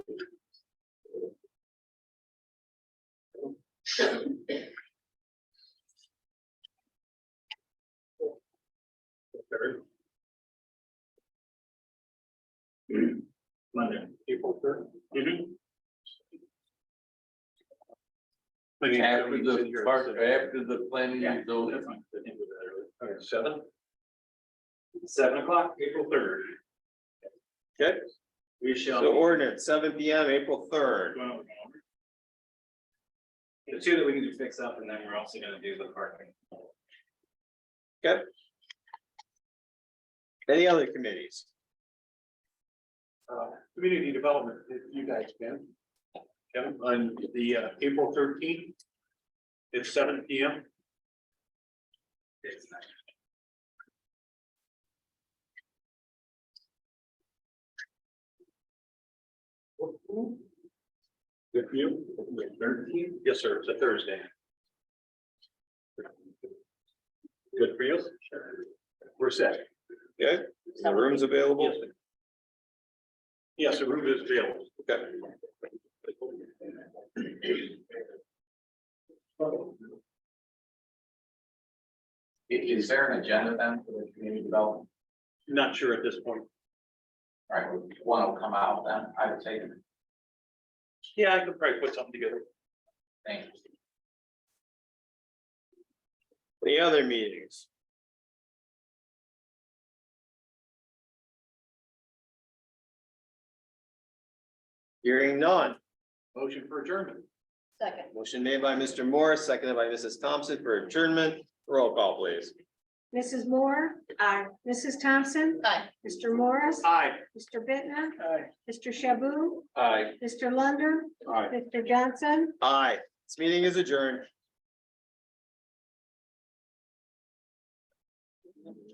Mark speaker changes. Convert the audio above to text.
Speaker 1: Monday, April third.
Speaker 2: Mm-hmm.
Speaker 3: After the park, after the planning
Speaker 1: Yeah,
Speaker 3: is over.
Speaker 1: that's fine. I think we're better. Seven? Seven o'clock, April third.
Speaker 2: Okay.
Speaker 1: We shall.
Speaker 2: So ordinance, seven P M, April third.
Speaker 1: The two that we need to fix up and then we're also gonna do the parking.
Speaker 2: Any other committees?
Speaker 1: Uh, community development, if you guys can. Kevin, on the uh, April thirteenth. It's seven P M. If you, thirteen? Yes, sir, it's a Thursday. Good for you? We're set.
Speaker 2: Okay, the room's available.
Speaker 1: Yes, the room is available.
Speaker 2: Okay.
Speaker 3: Is there an agenda then for the community development?
Speaker 1: Not sure at this point.
Speaker 3: All Right, one will come out then, I would say,
Speaker 1: Yeah, I could probably put something together.
Speaker 3: thank you.
Speaker 2: Any other meetings? Hearing none.
Speaker 1: Motion for adjournment.
Speaker 4: Second.
Speaker 2: Motion made by Mr. Morris, seconded by Mrs. Thompson for adjournment. Roll call, please.
Speaker 5: Mrs. Moore. Aye. Mrs. Thompson.
Speaker 4: Aye.
Speaker 5: Mr. Morris.
Speaker 1: Aye.
Speaker 5: Mr. Bitner.
Speaker 1: Aye.
Speaker 5: Mr. Shaboo.
Speaker 2: Aye.
Speaker 5: Mr. Lunder.
Speaker 1: Aye.
Speaker 5: Mr. Johnson.
Speaker 2: Aye. This meeting is adjourned.